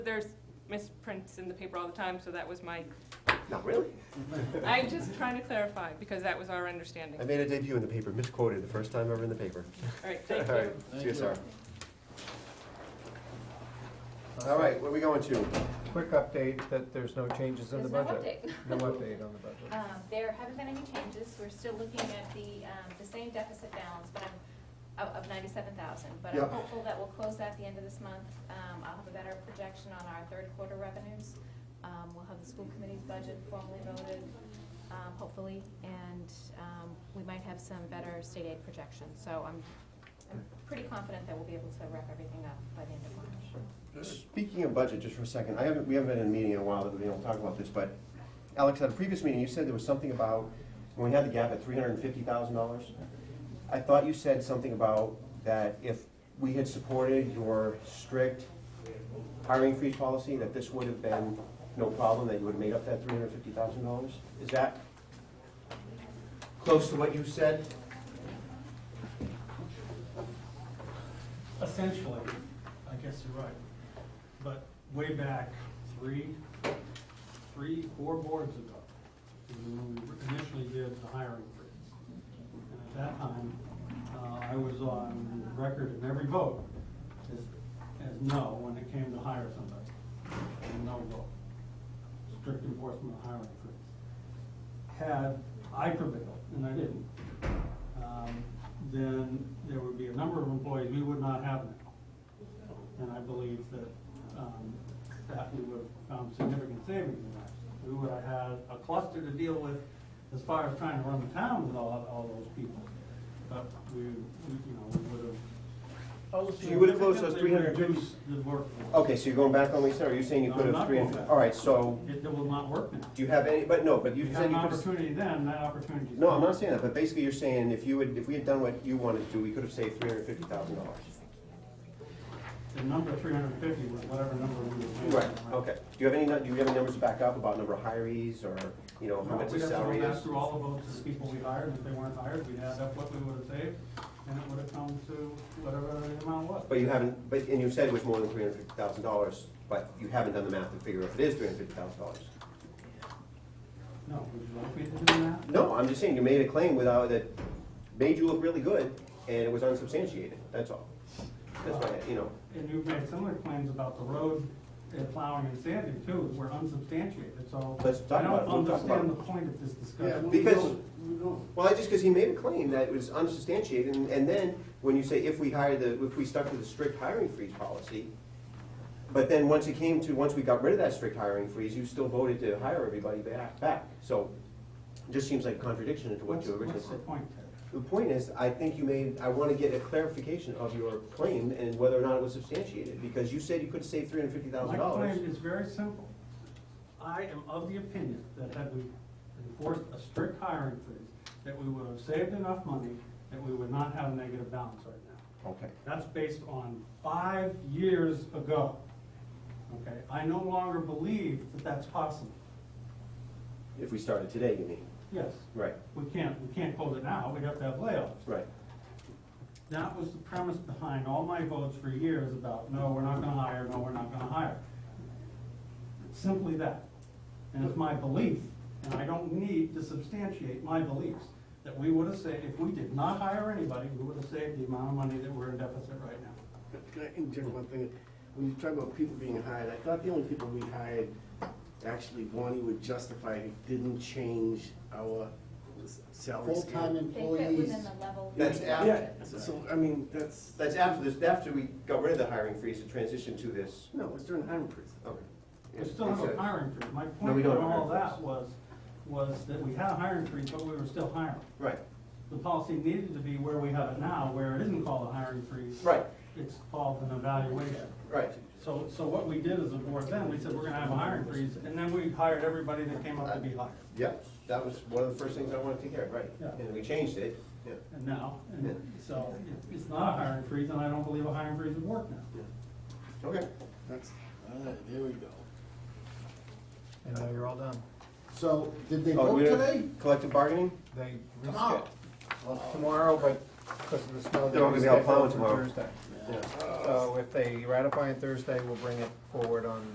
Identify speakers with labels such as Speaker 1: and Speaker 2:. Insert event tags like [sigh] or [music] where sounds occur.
Speaker 1: There's misprints in the paper all the time, so that was my,
Speaker 2: Not really.
Speaker 1: I'm just trying to clarify, because that was our understanding.
Speaker 2: I
Speaker 1: All
Speaker 2: made a debut in the paper, misquoted the first time ever in the paper.
Speaker 1: right, thank
Speaker 2: [laughs] All right,
Speaker 1: you.
Speaker 3: Thank you.
Speaker 2: CSR. All right, where are we going to?
Speaker 4: Quick update that there's no changes in the
Speaker 5: There's no
Speaker 4: budget.
Speaker 5: [laughs]
Speaker 4: No update on the budget.
Speaker 5: Um, There haven't been any changes, we're still looking at the, um, the same deficit balance, but I'm, of- of ninety-seven thousand. But
Speaker 2: Yeah.
Speaker 5: I'm hopeful that we'll close that at the end of this month. Um, I'll have a better projection on our third quarter revenues. Um, We'll have the school committee's budget formally voted, um, hopefully, and um, we might have some better state aid projections. So I'm, I'm pretty confident that we'll be able to wrap everything up by the end of March.
Speaker 2: Speaking of budget, just for a second, I haven't, we haven't been in a meeting in a while that we don't talk about this, but Alex, at a previous meeting, you said there was something about, when we had the gap at three hundred and fifty thousand dollars, I thought you said something about that if we had supported your strict hiring freeze policy, that this would have been no problem, that you would have made up that three hundred and fifty thousand dollars? Is that close to what you said?
Speaker 6: Essentially, I guess you're right. But way back, three, three, four boards ago, is when we initially did the hiring freeze. And at that time, uh, I was on record in every vote as, as no when it came to hire somebody. No vote. Strict enforcement of hiring freeze. Had I prevailed, and I didn't, um, then there would be a number of employees we would not have now. And I believe that, um, that we would have found significant savings in that. We would have had a cluster to deal with as far as trying to run the town with all, all those people. But we, we, you know, we would have.
Speaker 2: So you would have closed those
Speaker 6: significantly
Speaker 2: 350?
Speaker 6: reduced The workforce.
Speaker 2: Okay, so you're going back on what you said, or you're saying you
Speaker 6: No,
Speaker 2: could
Speaker 6: I'm
Speaker 2: have
Speaker 6: not
Speaker 2: three?
Speaker 6: going
Speaker 2: and-
Speaker 6: back.
Speaker 2: All right, so,
Speaker 6: It, it will not work now.
Speaker 2: do you have any, but no, but you
Speaker 6: You had
Speaker 2: said
Speaker 6: an
Speaker 2: you could have.
Speaker 6: opportunity then, that opportunity.
Speaker 2: No, I'm not saying that, but basically you're saying if you would, if we had done what you wanted to do, we could have saved three hundred fifty thousand dollars.
Speaker 6: The number three hundred and fifty was whatever number we were. paying,
Speaker 2: Right, okay. Do you have any, nu- do you have any numbers to back up about number of hirees or, you know, how
Speaker 6: No,
Speaker 2: much
Speaker 6: We'd
Speaker 2: the
Speaker 6: have to
Speaker 2: salary
Speaker 6: go back
Speaker 2: is?
Speaker 6: through all the votes of the people we hired, and if they weren't hired, we'd add up what we would have saved, and it would have come to whatever the amount was.
Speaker 2: But you haven't, but, and you said it was more than three hundred fifty thousand dollars, but you haven't done the math to figure if it is three hundred fifty thousand dollars.
Speaker 6: No, would you like me to do that?
Speaker 2: No, I'm just saying you made a claim without, that made you look really good and it was unsubstantiated, that's all. That's why, you know,
Speaker 6: And you've made similar claims about the road and plowing and sanding too, were unsubstantiated, so.
Speaker 2: Let's talk about it.
Speaker 6: I
Speaker 2: We'll
Speaker 6: don't
Speaker 2: talk about
Speaker 6: understand
Speaker 2: it.
Speaker 6: the point of this
Speaker 3: Yeah,
Speaker 6: discussion.
Speaker 3: Uh, we
Speaker 2: Because-
Speaker 3: don't- we don't.
Speaker 2: Well, I just, because he made a claim that it was unsubstantiated, and, and then, when you say if we hire the, if we stuck to the strict hiring freeze policy, but then once it came to, once we got rid of that strict hiring freeze, you still voted to hire everybody back, back, so it just seems like a contradiction to what
Speaker 6: What's,
Speaker 2: you originally
Speaker 6: what's the
Speaker 2: said.
Speaker 6: point, Ted?
Speaker 2: The point is, I think you made, I wanna get a clarification of your claim and whether or not it was substantiated, because you said you could save three hundred fifty thousand
Speaker 6: My
Speaker 2: dollars.
Speaker 6: claim is very simple. I am of the opinion that had we enforced a strict hiring freeze, that we would have saved enough money, that we would not have a negative balance right now.
Speaker 2: Okay,
Speaker 6: That's based on five years ago. Okay, I no longer believe that that's possible.
Speaker 2: if we started today, you mean,
Speaker 6: Yes,
Speaker 2: right,
Speaker 6: we can't, we can't close it now, we'd have to have layoffs.
Speaker 2: right,
Speaker 6: That was the premise behind all my votes for years about, no, we're not gonna hire, no, we're not gonna hire. It's Simply that. And it's my belief, and I don't need to substantiate my beliefs, that we would have saved, if we did not hire anybody, we would have saved the amount of money that we're in deficit right now.
Speaker 3: Can I interject one thing? When you talk about people being hired, I thought the only people we hired, actually, Bonnie would justify, who didn't change our salary scale.
Speaker 7: Full-time
Speaker 5: They fit
Speaker 7: employees,
Speaker 5: within the level.
Speaker 2: That's
Speaker 5: we
Speaker 2: after-
Speaker 3: Yeah,
Speaker 5: budgeted.
Speaker 3: so- so, I mean, that's,
Speaker 2: that's after this, after we got rid of the hiring freeze and transitioned to this.
Speaker 3: no, it's during hiring freeze.
Speaker 2: Okay.
Speaker 6: We still have a hiring freeze. My
Speaker 2: No, we
Speaker 6: point
Speaker 2: don't
Speaker 6: on
Speaker 2: have a
Speaker 6: all
Speaker 2: hiring
Speaker 6: that
Speaker 2: freeze.
Speaker 6: was, was that we had a hiring freeze, but we were still hiring.
Speaker 2: Right,
Speaker 6: The policy needed to be where we have it now, where it isn't called a hiring freeze.
Speaker 2: Right.
Speaker 6: It's called an evaluation.
Speaker 2: right.
Speaker 6: So, so what we did as a board then, we said, we're gonna have a hiring freeze, and then we hired everybody that came up to be hired.
Speaker 2: Yep, that was one of the first things I wanted to hear, right.
Speaker 6: Yeah.
Speaker 2: And we changed it, yeah.
Speaker 6: And now, and so it- it's not a hiring freeze, and I don't believe a hiring freeze would work now.
Speaker 2: Okay.
Speaker 3: That's,
Speaker 7: all right, there we go.
Speaker 4: And now you're all done.
Speaker 7: So, did they
Speaker 2: Oh,
Speaker 7: vote
Speaker 2: we don't-
Speaker 7: today?
Speaker 2: Collective bargaining?
Speaker 4: They.
Speaker 7: Tomorrow.
Speaker 4: Well, tomorrow, but because of the snow.
Speaker 2: They're all gonna be out plowing
Speaker 4: rescheduled for
Speaker 2: tomorrow.
Speaker 4: Thursday. So if they ratify it Thursday, we'll bring it forward on